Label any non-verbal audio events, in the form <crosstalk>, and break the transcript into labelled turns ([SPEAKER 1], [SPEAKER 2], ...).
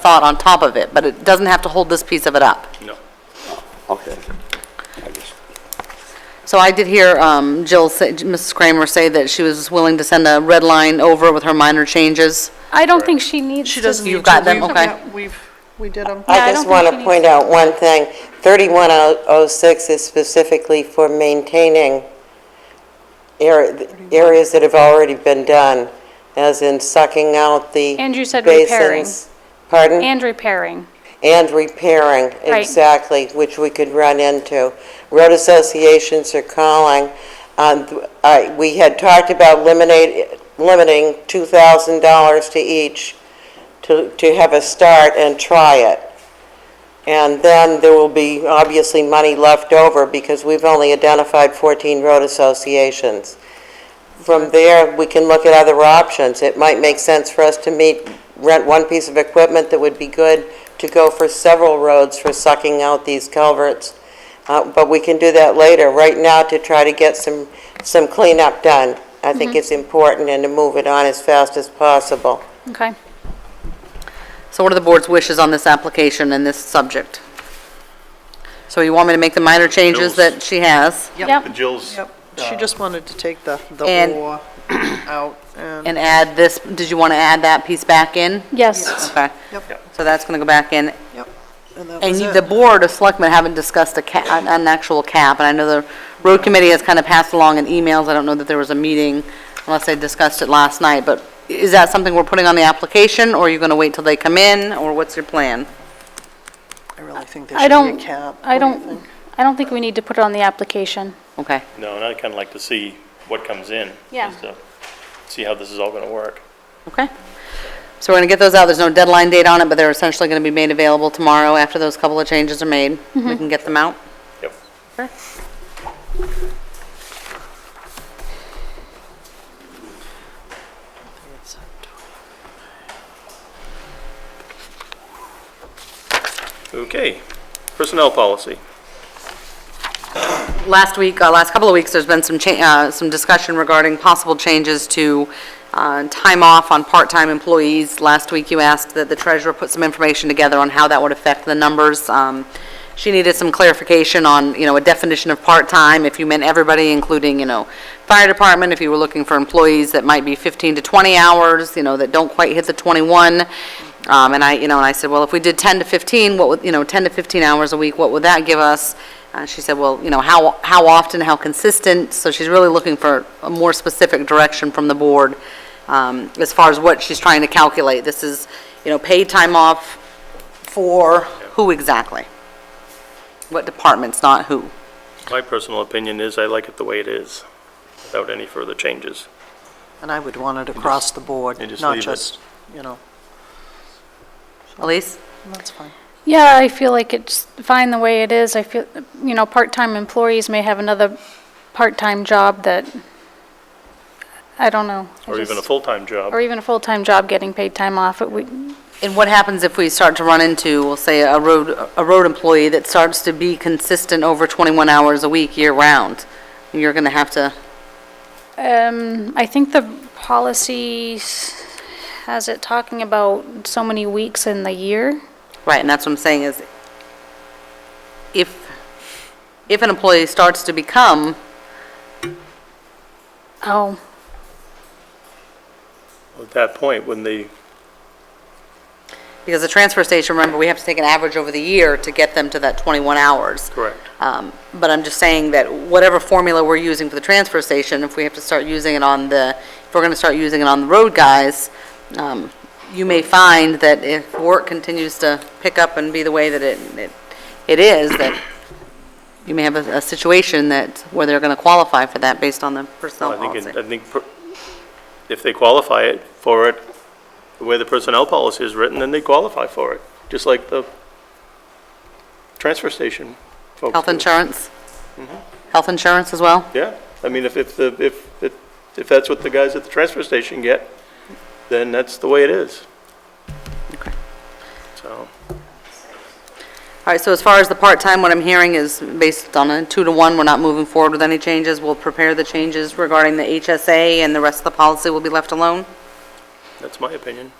[SPEAKER 1] thought on top of it, but it doesn't have to hold this piece of it up.
[SPEAKER 2] No.
[SPEAKER 3] Okay. I just-
[SPEAKER 1] So I did hear um, Jill, say- Mrs. Kramer say that she was willing to send a red line over with her minor changes.
[SPEAKER 4] I don't think she needs to.
[SPEAKER 1] She doesn't You've got them, okay.
[SPEAKER 5] We've, we did them.
[SPEAKER 4] Yeah, I
[SPEAKER 6] I
[SPEAKER 4] don't
[SPEAKER 6] just
[SPEAKER 4] think
[SPEAKER 6] want
[SPEAKER 4] she
[SPEAKER 6] to
[SPEAKER 4] needs
[SPEAKER 6] point out one thing. 3106 is specifically for maintaining ar- areas that have already been done, as in sucking out the
[SPEAKER 4] And you said repairing.
[SPEAKER 6] basins. Pardon?
[SPEAKER 4] And repairing.
[SPEAKER 6] And repairing,
[SPEAKER 4] Right.
[SPEAKER 6] exactly, which we could run into. Road associations are calling. on th- I- We had talked about eliminate, limiting $2,000 to each to, to have a start and try it. And then there will be obviously money left over because we've only identified 14 road associations. From there, we can look at other options. It might make sense for us to meet, rent one piece of equipment that would be good to go for several roads for sucking out these culverts. Uh, But we can do that later. Right now, to try to get some, some cleanup done, I think it's important and to move it on as fast as possible.
[SPEAKER 4] Okay.
[SPEAKER 1] So what are the board's wishes on this application and this subject? So you want me to make the minor changes
[SPEAKER 2] Jill's.
[SPEAKER 1] that she has
[SPEAKER 4] Yep.
[SPEAKER 2] Jill's,
[SPEAKER 5] Yep, she just wanted to take the, the
[SPEAKER 1] And-
[SPEAKER 5] <clears throat> or out and,
[SPEAKER 1] and add this, did you want to add that piece back in?
[SPEAKER 4] Yes.
[SPEAKER 1] Okay,
[SPEAKER 5] yep,
[SPEAKER 1] so that's going to go back in.
[SPEAKER 5] yep. And that
[SPEAKER 1] And
[SPEAKER 5] was
[SPEAKER 1] you-
[SPEAKER 5] it.
[SPEAKER 1] the board of selectmen haven't discussed a ca, an- an actual cap, and I know the road committee has kind of passed along in emails, I don't know that there was a meeting unless they discussed it last night, but is that something we're putting on the application, or are you going to wait till they come in, or what's your plan?
[SPEAKER 5] I really think there
[SPEAKER 4] I
[SPEAKER 5] should
[SPEAKER 4] don't,
[SPEAKER 5] be a cap.
[SPEAKER 4] I
[SPEAKER 5] What do you
[SPEAKER 4] don't,
[SPEAKER 5] think?
[SPEAKER 4] I don't think we need to put it on the application.
[SPEAKER 1] Okay,
[SPEAKER 2] no, and I'd kind of like to see what comes in.
[SPEAKER 4] Yeah.
[SPEAKER 2] just to See how this is all going to work.
[SPEAKER 1] okay. So we're going to get those out, there's no deadline date on it, but they're essentially going to be made available tomorrow after those couple of changes are made. We can get them out.
[SPEAKER 2] Yep. Okay, personnel policy.
[SPEAKER 1] last week, uh, last couple of weeks, there's been some, cha- uh, some discussion regarding possible changes to uh, time off on part-time employees. Last week, you asked that the treasurer put some information together on how that would affect the numbers. Um, She needed some clarification on, you know, a definition of part-time, if you meant everybody, including, you know, fire department, if you were looking for employees that might be 15 to 20 hours, you know, that don't quite hit the 21. Um, And I, you know, and I said, well, if we did 10 to 15, what would, you know, 10 to 15 hours a week, what would that give us? Uh, She said, well, you know, how, how often, how consistent? So she's really looking for a more specific direction from the board um, as far as what she's trying to calculate. This is, you know, paid time off for who exactly? What departments, not who?
[SPEAKER 2] My personal opinion is I like it the way it is, without any further changes.
[SPEAKER 5] And I would want it across the board,
[SPEAKER 2] and just
[SPEAKER 5] not
[SPEAKER 2] leave it.
[SPEAKER 5] just, you know,
[SPEAKER 1] Elise?
[SPEAKER 5] that's fine.
[SPEAKER 4] Yeah, I feel like it's fine the way it is. I feel, you know, part-time employees may have another part-time job that, I don't know. I
[SPEAKER 2] Or even a
[SPEAKER 4] just-
[SPEAKER 2] full-time job.
[SPEAKER 4] Or even a full-time job getting paid time off. It would,
[SPEAKER 1] And what happens if we start to run into, we'll say, a road, a road employee that starts to be consistent over 21 hours a week year-round? You're going to have to,
[SPEAKER 4] Um, I think the policy s- has it talking about so many weeks in the year.
[SPEAKER 1] right, and that's what I'm saying is, if, if an employee starts to become,
[SPEAKER 4] Oh,
[SPEAKER 2] At that point, when they,
[SPEAKER 1] because the transfer station, remember, we have to take an average over the year to get them to that 21 hours.
[SPEAKER 2] correct.
[SPEAKER 1] Um, But I'm just saying that whatever formula we're using for the transfer station, if we have to start using it on the, if we're going to start using it on the road guys, um, you may find that if work continues to pick up and be the way that it, it- it is, that you may have a a situation that, where they're going to qualify for that based on the personnel
[SPEAKER 2] I think, it- I
[SPEAKER 1] policy.
[SPEAKER 2] think per- if they qualify it for it, the way the personnel policy is written, then they qualify for it, just like the transfer station folks
[SPEAKER 1] Health
[SPEAKER 2] do.
[SPEAKER 1] insurance?
[SPEAKER 2] Mm-hmm.
[SPEAKER 1] Health insurance as well?
[SPEAKER 2] Yeah, I mean, if, if, the if, if- if that's what the guys at the transfer station get, then that's the way it is.
[SPEAKER 1] Okay.
[SPEAKER 2] So,
[SPEAKER 1] All right, so as far as the part-time, what I'm hearing is based on a two-to-one, we're not moving forward with any changes. We'll prepare the changes regarding the HSA, and the rest of the policy will be left alone?
[SPEAKER 2] that's my opinion.